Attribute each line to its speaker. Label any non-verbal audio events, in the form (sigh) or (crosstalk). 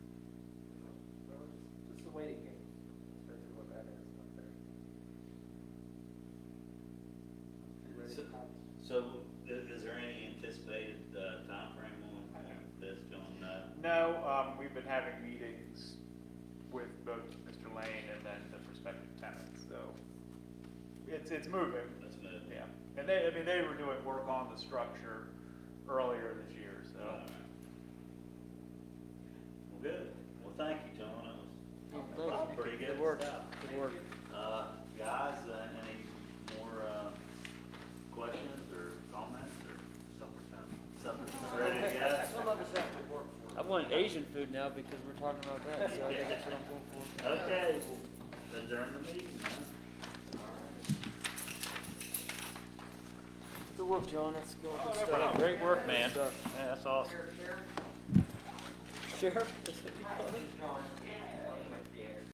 Speaker 1: a waiting game. That's what that is up there. Ready
Speaker 2: So-
Speaker 1: to pounce.
Speaker 2: So i- is there any anticipated uh, timeframe on on this going, uh,
Speaker 3: No, um, we've been having meetings with both Mr. Lane and then the prospective tenants, so it's, it's moving,
Speaker 2: let's move?
Speaker 3: yeah. And they, I mean, they were doing work on the structure earlier this year, so.
Speaker 2: All right. Well, good. Well, thank you, John. That was- That was pretty good stuff.
Speaker 4: Good work.
Speaker 2: Uh, guys, uh, any more, uh, questions or comments or something? Something ready to
Speaker 4: (laughs)
Speaker 1: Some
Speaker 2: go?
Speaker 1: of us have to work for
Speaker 4: I
Speaker 1: it.
Speaker 4: want Asian food now because we're talking about that, so I think that's what I'm going for.
Speaker 2: Okay, well, adjourn the meeting, huh?
Speaker 4: Good work, John, that's good
Speaker 1: Oh,
Speaker 3: no
Speaker 4: stuff.
Speaker 3: problem.
Speaker 4: Great work, man.
Speaker 2: Yeah, that's awesome.
Speaker 4: Sheriff?
Speaker 1: Hi, this is John.